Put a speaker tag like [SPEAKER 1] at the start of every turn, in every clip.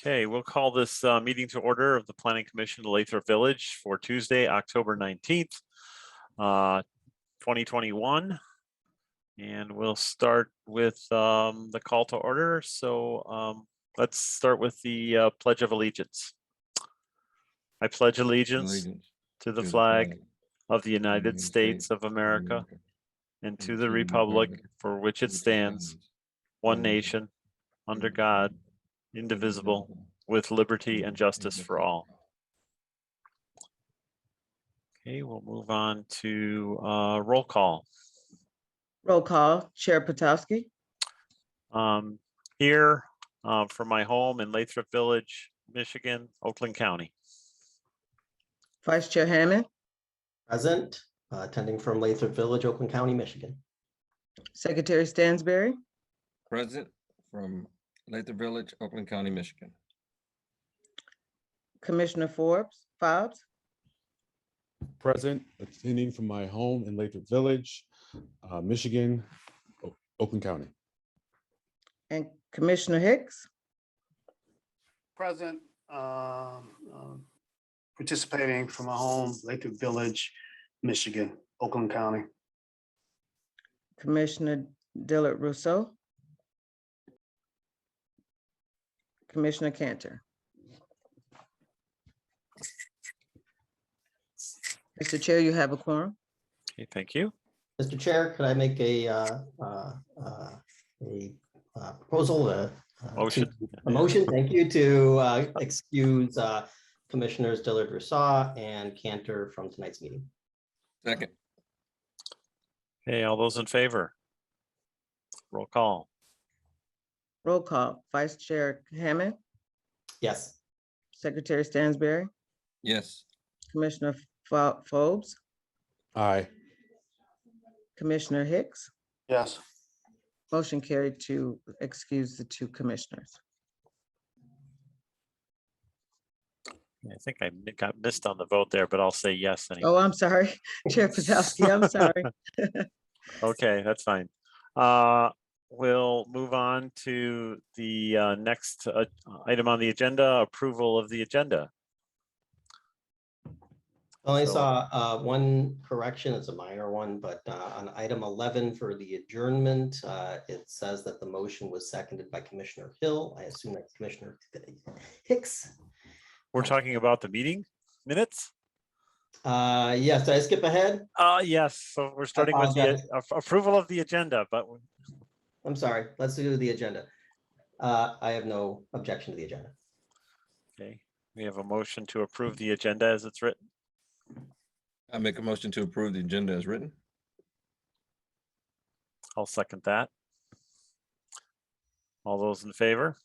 [SPEAKER 1] Okay, we'll call this uh, meeting to order of the Planning Commission of Lathrop Village for Tuesday, October 19th, uh, 2021. And we'll start with um, the call to order. So um, let's start with the uh, Pledge of Allegiance. I pledge allegiance
[SPEAKER 2] Allegiance
[SPEAKER 1] to the
[SPEAKER 2] to
[SPEAKER 1] flag of the United
[SPEAKER 2] United
[SPEAKER 1] States
[SPEAKER 2] States
[SPEAKER 1] of America and to the republic for which it
[SPEAKER 2] which
[SPEAKER 1] stands, one
[SPEAKER 2] one
[SPEAKER 1] nation, under God, indivisible, with liberty and justice for all. Okay, we'll move on to uh, roll call.
[SPEAKER 3] Roll call, Chair Potowski,
[SPEAKER 1] Um, Here uh, from my home in Lathrop Village, Michigan, Oakland County.
[SPEAKER 3] Vice Chair Hammond,
[SPEAKER 4] Present, uh, attending from Lathrop Village, Oakland County, Michigan.
[SPEAKER 3] Secretary Stansberry,
[SPEAKER 2] Present from Lathrop Village, Oakland County, Michigan.
[SPEAKER 3] Commissioner Forbes, Fobbs,
[SPEAKER 5] present, attending from my home in Lathrop Village, uh, Michigan, O- Oakland County.
[SPEAKER 3] and Commissioner Hicks.
[SPEAKER 6] present, um, um, participating from my home, Lathir Village, Michigan, Oakland County.
[SPEAKER 3] Commissioner Dillard Rousseau. Commissioner Cantor. Mr. Chair, you have a quorum.
[SPEAKER 1] Okay, thank you.
[SPEAKER 4] Mr. Chair, could I make a, uh, uh, uh, a uh, proposal, uh, uh, to-
[SPEAKER 1] Motion.
[SPEAKER 4] A motion, thank you, to uh, excuse uh, Commissioners Dillard Rousseau and Cantor from tonight's meeting.
[SPEAKER 2] Second,
[SPEAKER 1] Hey, all those in favor? Roll call.
[SPEAKER 3] Roll call, Vice Chair Hammond,
[SPEAKER 4] Yes,
[SPEAKER 3] Secretary Stansberry,
[SPEAKER 2] yes,
[SPEAKER 3] Commissioner Fo- Fobbs,
[SPEAKER 5] Aye,
[SPEAKER 3] Commissioner Hicks.
[SPEAKER 6] Yes,
[SPEAKER 3] Motion carried to excuse the two commissioners.
[SPEAKER 1] I think I mi- got missed on the vote there, but I'll say yes anyway.
[SPEAKER 3] Oh, I'm sorry, Chair Potowski, I'm sorry.
[SPEAKER 1] Okay, that's fine. Uh, We'll move on to the uh, next uh, item on the agenda, approval of the agenda.
[SPEAKER 4] I only
[SPEAKER 1] So-
[SPEAKER 4] saw uh, one correction, it's a minor one, but uh, on item 11 for the adjournment, uh, it says that the motion was seconded by Commissioner Hill. I assume that's Commissioner Hicks.
[SPEAKER 1] We're talking about the meeting minutes?
[SPEAKER 4] Uh, Yes, did I skip ahead?
[SPEAKER 1] Uh, yes, so we're starting with the
[SPEAKER 4] apologize.
[SPEAKER 1] a- a- approval of the agenda, but we-
[SPEAKER 4] I'm sorry, let's do the agenda. Uh, I have no objection to the agenda.
[SPEAKER 1] okay, we have a motion to approve the agenda as it's written.
[SPEAKER 2] I make a motion to approve the agenda as written.
[SPEAKER 1] I'll second that. All those in favor?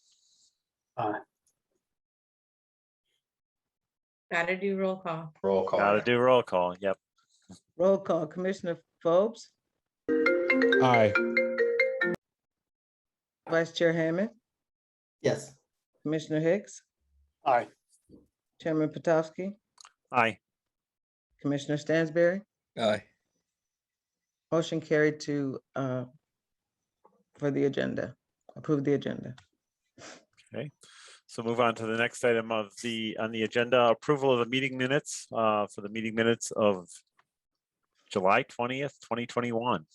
[SPEAKER 7] Gotta do roll call.
[SPEAKER 4] Roll call.
[SPEAKER 1] Gotta do roll call. Yep.
[SPEAKER 3] Roll call, Commissioner Fobbs,
[SPEAKER 5] aye,
[SPEAKER 3] Vice Chair Hammond,
[SPEAKER 4] Yes,
[SPEAKER 3] Commissioner Hicks,
[SPEAKER 6] all right,
[SPEAKER 3] Chairman Potowski,
[SPEAKER 1] Aye.
[SPEAKER 3] Commissioner Stansberry.
[SPEAKER 2] Aye,
[SPEAKER 3] Motion carried to, uh, for the agenda, approve the agenda.
[SPEAKER 1] So move on to the next item of the, on the agenda, approval of the meeting minutes, uh, for the meeting minutes of July twentieth, twenty twenty-one.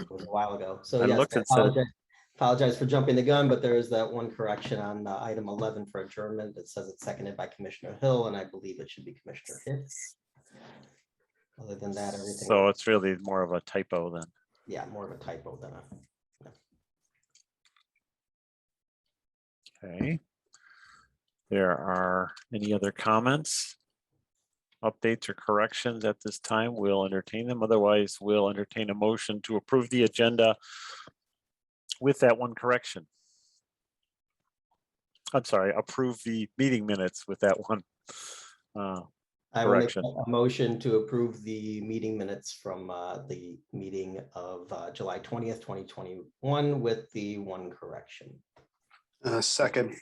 [SPEAKER 4] it was a while ago. So
[SPEAKER 1] I
[SPEAKER 4] yes,
[SPEAKER 1] looked
[SPEAKER 4] I
[SPEAKER 1] and said-
[SPEAKER 4] apologize- apologize for jumping the gun, but there is that one correction on uh, item 11 for adjournment that says it's seconded by Commissioner Hill, and I believe it should be Commissioner Hicks. Other than that, everything,
[SPEAKER 1] So it's really more of a typo than,
[SPEAKER 4] yeah, more of a typo than a,
[SPEAKER 1] okay. There are any other comments? Updates or corrections at this time, we'll entertain them. Otherwise, we'll entertain a motion to approve the agenda with that one correction. I'm sorry, approve the meeting minutes with that one. Uh,
[SPEAKER 4] I will make
[SPEAKER 1] Correction.
[SPEAKER 4] a motion to approve the meeting minutes from uh, the meeting of uh, July 20th, 2021 with the one correction.
[SPEAKER 6] uh, second,